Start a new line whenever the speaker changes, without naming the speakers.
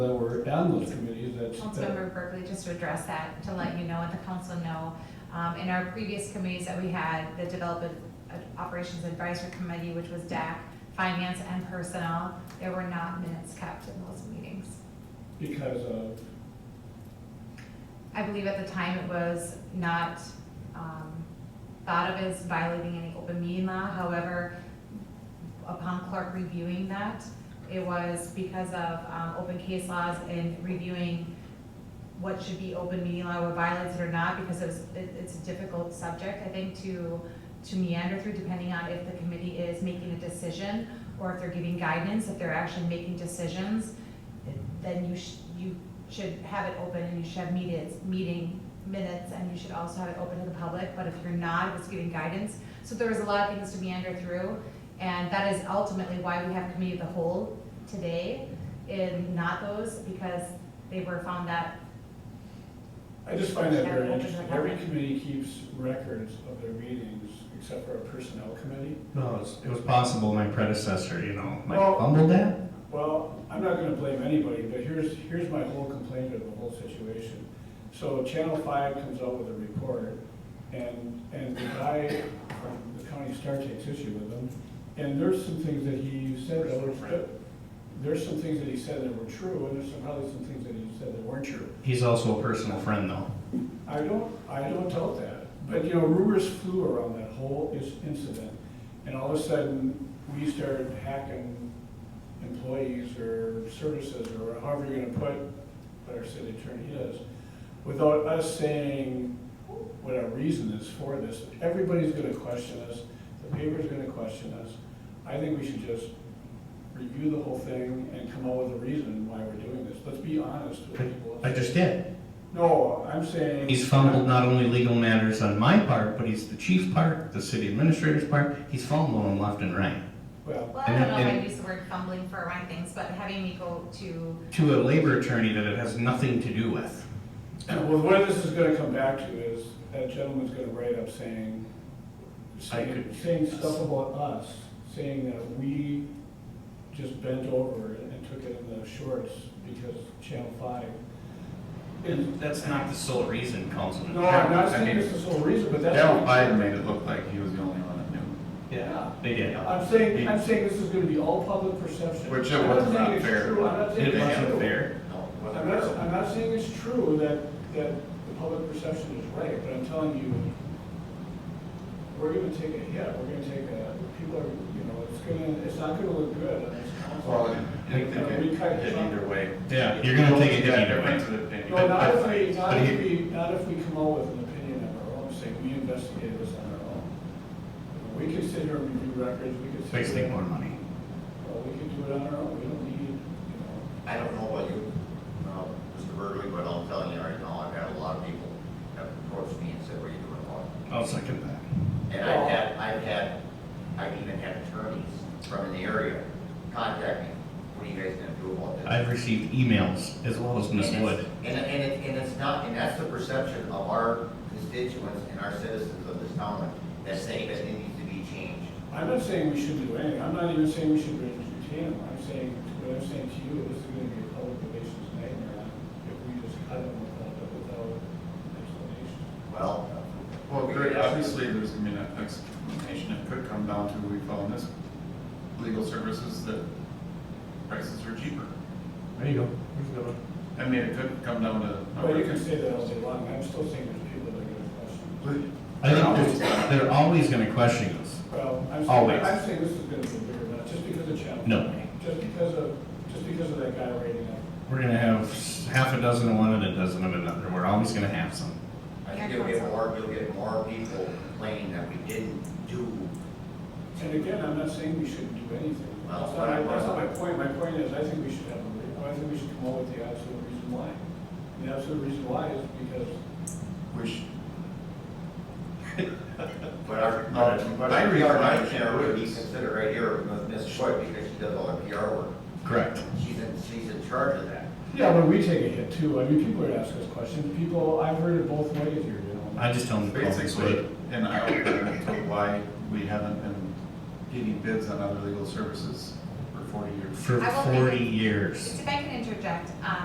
that were on those committees, that's.
Councilmember Berkeley, just to address that, to let you know and the council know, um, in our previous committees that we had, the Development Operations Advisory Committee, which was DAC, Finance and Personnel, there were not minutes kept in those meetings.
Because of,
I believe at the time it was not um, thought of as violating any open meeting law. However, upon clerk reviewing that, it was because of um, open case laws and reviewing what should be open meeting law, what violates it or not, because it was, it- it's a difficult subject, I think, to, to meander through, depending on if the committee is making a decision or if they're giving guidance, if they're actually making decisions, then you should, you should have it open and you should have meetings, meeting minutes, and you should also have it open to the public, but if you're not, if it's giving guidance. So there was a lot of things to meander through, and that is ultimately why we have committee of the whole today, and not those, because they were found that
I just find that very interesting. Every committee keeps records of their meetings, except for a personnel committee.
No, it was, it was possible my predecessor, you know, might
Well-
have fumbled that.
Well, I'm not gonna blame anybody, but here's, here's my whole complaint of the whole situation. So Channel Five comes out with a report, and, and the guy from the county star takes issue with them. And there's some things that he said that were, there's some things that he said that were true, and there's some, probably some things that he said that weren't true.
He's also a personal friend, though.
I don't, I don't doubt that, but you know, rumors flew around that whole is- incident, and all of a sudden, we started hacking employees or services, or however you're gonna put what our city attorney is, without us saying what our reason is for this. Everybody's gonna question us, the paper's gonna question us. I think we should just review the whole thing and come up with a reason why we're doing this. Let's be honest with people.
I just did.
No, I'm saying.
He's fumbled not only legal matters on my part, but he's the chief's part, the city administrator's part. He's fumbled them left and right.
Well,
Well, I don't know if
And-
I'd use the word fumbling for around things, but having me go to,
To a labor attorney that it has nothing to do with.
well, where this is gonna come back to is, that gentleman's gonna write up saying,
I
saying
could-
saying stuff about us, saying that we just bent over and took it in the shorts because Channel Five.
And that's not the sole reason, Councilman.
No, I'm not saying this is the sole reason, but that's.
Daryl Biden made it look like he was the only one that knew,
Yeah, they did.
I'm saying, I'm saying this is gonna be all public perception.
Which it
I'm
was
saying
not
it's
fair.
true, I'm not saying it's
It
true.
wasn't fair.
no, it
I'm
wasn't
not,
Daryl.
I'm not saying it's true that, that the public perception is right, but I'm telling you, we're gonna take a hit, we're gonna take a, people are, you know, it's gonna, it's not gonna look good on this
Well, I
council.
didn't think
We
it
cut
hit
Trump.
either way.
Yeah, you're gonna take a hit either way.
way.
No, not if we, not
But he-
if we, not if we come up with an opinion of our own, say, we investigated this on our own. We could sit here and review records, we could sit.
Wasting
here-
more money.
Well, we could do it on our own, we don't need, you know.
I don't know about you, uh, Mr. Burgley, but I'm telling you right now, I've had a lot of people have approached me and said, what are you doing about it?
I'll second that.
And I've had, I've had, I've even had attorneys from the area contact me, what are you guys gonna do about this?
I've received emails as well as Ms.
And it's-
Wood.
And, it- and it, and it's not, and that's the perception of our constituents and our citizens of this town that say that it needs to be changed.
I'm not saying we shouldn't do anything, I'm not even saying we should retain them, I'm saying, what I'm saying to you, this is gonna be a public relations nightmare if we just cut them without, without explanation.
Well.
Well, great, obviously, there's gonna be an explanation, it could come down to, we found this, legal services that prices are cheaper.
There you go.
I mean, it could come down to.
But you can say that all day long, I'm still saying there's people that are gonna question.
I think they're- they're always gonna question us.
Well, I'm
Always.
saying, I'm saying this is gonna be bigger, not just because of Channel.
No.
Five, Just because of, just because of that guy rating it.
We're gonna have half a dozen of one and a dozen of another. We're always gonna have some.
I think you'll get more, you'll get more people complaining that we didn't do
And again, I'm not saying we shouldn't do anything.
Well,
That's not, my-
but I-
that's not my point. My point is, I think we should have, a re- I think we should come up with the absolute reason why. The absolute reason why is because,
Which,
But our,
No,
but
I
our
agree.
PR manager would be considered right here with Ms. Choi because she does all the PR work.
Correct.
She's in, she's in charge of that.
yeah, but we take a hit too. I mean, people are asking us questions. People, I've heard it both ways here, you know.
I just tell them to call this
basically,
way.
and I don't know why we haven't been getting bids on other legal services for forty years.
for
I will make
forty
it-
years.
If I can interject, um,